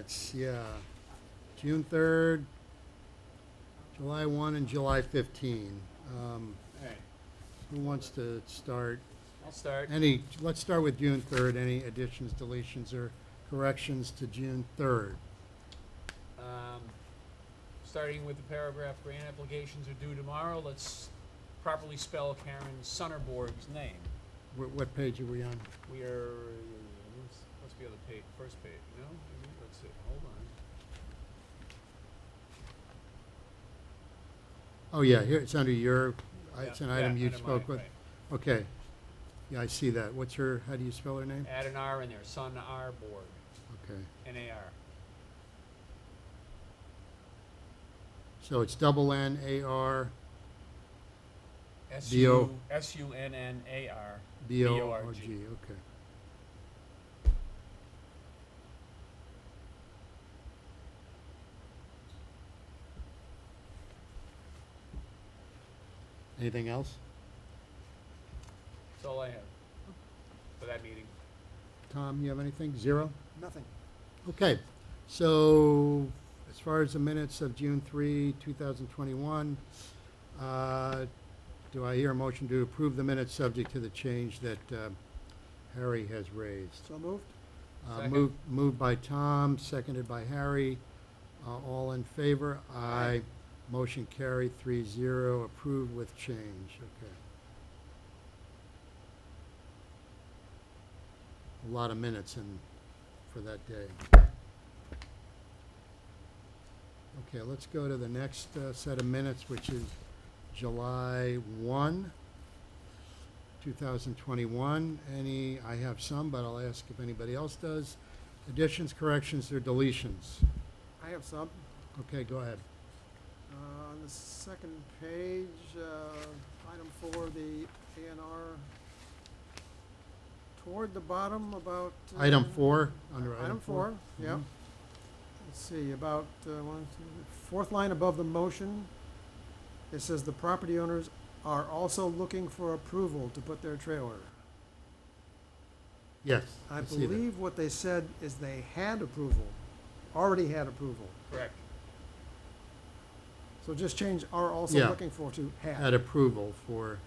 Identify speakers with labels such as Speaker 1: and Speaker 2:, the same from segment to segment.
Speaker 1: It's, yeah, June third, July one, and July fifteen. Um,
Speaker 2: Alright,
Speaker 1: who wants to start?
Speaker 2: I'll start.
Speaker 1: Any, let's start with June third. Any additions, deletions, or corrections to June third?
Speaker 2: Um, starting with the paragraph, grant applications are due tomorrow, let's properly spell Karen Sonnerborg's name.
Speaker 1: What, what page are we on?
Speaker 2: We are, what's- what's the other page, first page, no, let's see, hold on.
Speaker 1: Oh, yeah, here, it's under your, I- Uh, it's
Speaker 2: Yeah,
Speaker 1: an
Speaker 2: yeah,
Speaker 1: item you
Speaker 2: item I,
Speaker 1: spoke with.
Speaker 2: right.
Speaker 1: Okay. Yeah, I see that. What's her, how do you spell her name?
Speaker 2: Add an R in there, Sonarborg,
Speaker 1: Okay.
Speaker 2: N-A-R,
Speaker 1: So it's double N A R
Speaker 2: S-U, S-U-N-N-A-R.
Speaker 1: B O
Speaker 2: B O
Speaker 1: R
Speaker 2: R
Speaker 1: G,
Speaker 2: G.
Speaker 1: okay. Anything else?
Speaker 2: That's all I have for that meeting.
Speaker 1: Tom, you have anything? Zero?
Speaker 3: Nothing.
Speaker 1: Okay, so as far as the minutes of June three, two thousand twenty-one, uh, do I hear a motion to approve the minutes subject to the change that, uh, Harry has raised?
Speaker 3: So moved?
Speaker 1: Uh,
Speaker 2: Second.
Speaker 1: moved, moved by Tom, seconded by Harry. Uh, all in favor? Aye.
Speaker 2: Aye.
Speaker 1: Motion carried, three zero, approved with change, okay. A lot of minutes in, for that day. Okay, let's go to the next, uh, set of minutes, which is July one, two thousand twenty-one. Any, I have some, but I'll ask if anybody else does. Additions, corrections, or deletions?
Speaker 3: I have some.
Speaker 1: Okay, go ahead.
Speaker 3: Uh, on the second page, uh, item four, the A and R. Toward the bottom about. uh,
Speaker 1: Item four, under
Speaker 3: Item four, yeah.
Speaker 1: Mhm.
Speaker 3: Let's see, about, uh, one, two, fourth line above the motion, it says the property owners are also looking for approval to put their trailer.
Speaker 1: Yes,
Speaker 3: I
Speaker 1: I see that.
Speaker 3: believe what they said is they had approval, already had approval.
Speaker 2: Correct.
Speaker 3: So just change are also
Speaker 1: Yeah.
Speaker 3: looking for to
Speaker 1: Had
Speaker 3: have.
Speaker 1: approval for,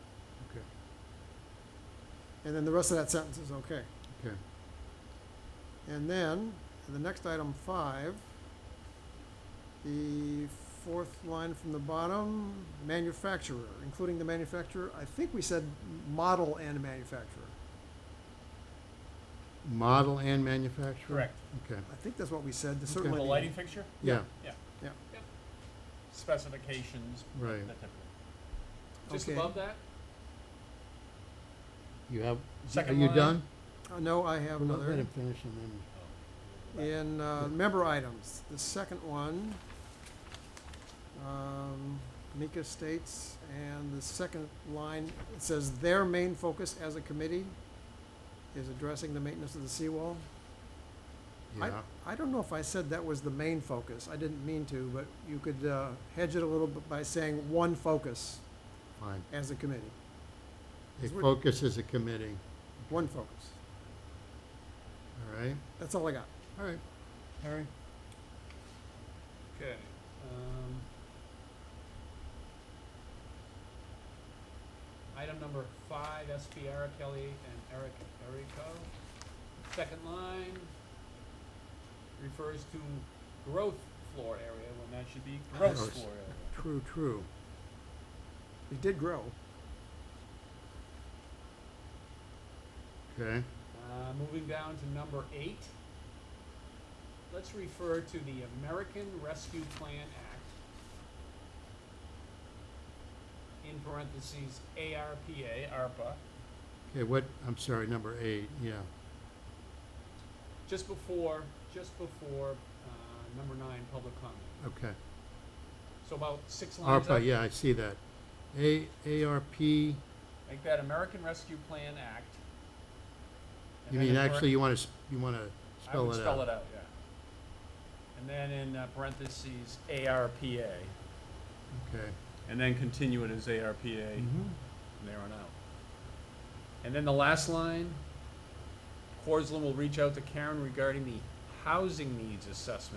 Speaker 1: okay,
Speaker 3: And then the rest of that sentence is okay.
Speaker 1: okay.
Speaker 3: And then, the next item five, the fourth line from the bottom, manufacturer, including the manufacturer, I think we said model and manufacturer.
Speaker 1: Model and manufacturer?
Speaker 2: Correct.
Speaker 1: Okay,
Speaker 3: I think that's what we said, the
Speaker 1: Okay.
Speaker 3: certainly.
Speaker 2: The lighting fixture?
Speaker 1: yeah,
Speaker 2: Specifications,
Speaker 1: right.
Speaker 2: that type of thing. Just
Speaker 3: Okay.
Speaker 2: above that?
Speaker 1: You have, are
Speaker 2: Second
Speaker 1: you
Speaker 2: line.
Speaker 1: done?
Speaker 3: Uh, no, I have
Speaker 1: Let
Speaker 3: another.
Speaker 1: him finish and then.
Speaker 3: In uh, member items, the second one, um, Mika states, and the second line, it says their main focus as a committee is addressing the maintenance of the seawall. I-
Speaker 1: Yeah,
Speaker 3: I don't know if I said that was the main focus, I didn't mean to, but you could uh, hedge it a little bit by saying one focus
Speaker 1: fine.
Speaker 3: as a committee,
Speaker 1: It
Speaker 3: Is what-
Speaker 1: focuses a committee,
Speaker 3: one focus.
Speaker 1: all right?
Speaker 3: That's all I got.
Speaker 1: All right. Harry?
Speaker 2: Okay. um, Item number five, SPR Kelly and Eric Erico. Second line refers to growth floor area, when that should be gross
Speaker 1: Gross.
Speaker 2: floor area.
Speaker 1: True, true.
Speaker 3: It did grow.
Speaker 1: Okay,
Speaker 2: Uh, Moving down to number eight, let's refer to the American Rescue Plan Act, in parentheses, ARPA, ARPA,
Speaker 1: okay, what, I'm sorry, number eight, yeah.
Speaker 2: just before, just before, uh, number nine, public comment.
Speaker 1: Okay.
Speaker 2: So about six lines up.
Speaker 1: ARPA, yeah, I see that. A, ARP, you
Speaker 2: Make that American Rescue Plan Act. and then
Speaker 1: mean,
Speaker 2: in par-
Speaker 1: actually, you want to, you want to
Speaker 2: I
Speaker 1: spell
Speaker 2: would
Speaker 1: it
Speaker 2: spell
Speaker 1: out?
Speaker 2: it out, yeah. And then in uh, parentheses, ARPA,
Speaker 1: Okay.
Speaker 2: and then continue it as ARPA
Speaker 1: Mhm.
Speaker 2: from there on out. And then the last line, Corslin will reach out to Karen regarding the housing needs assessment.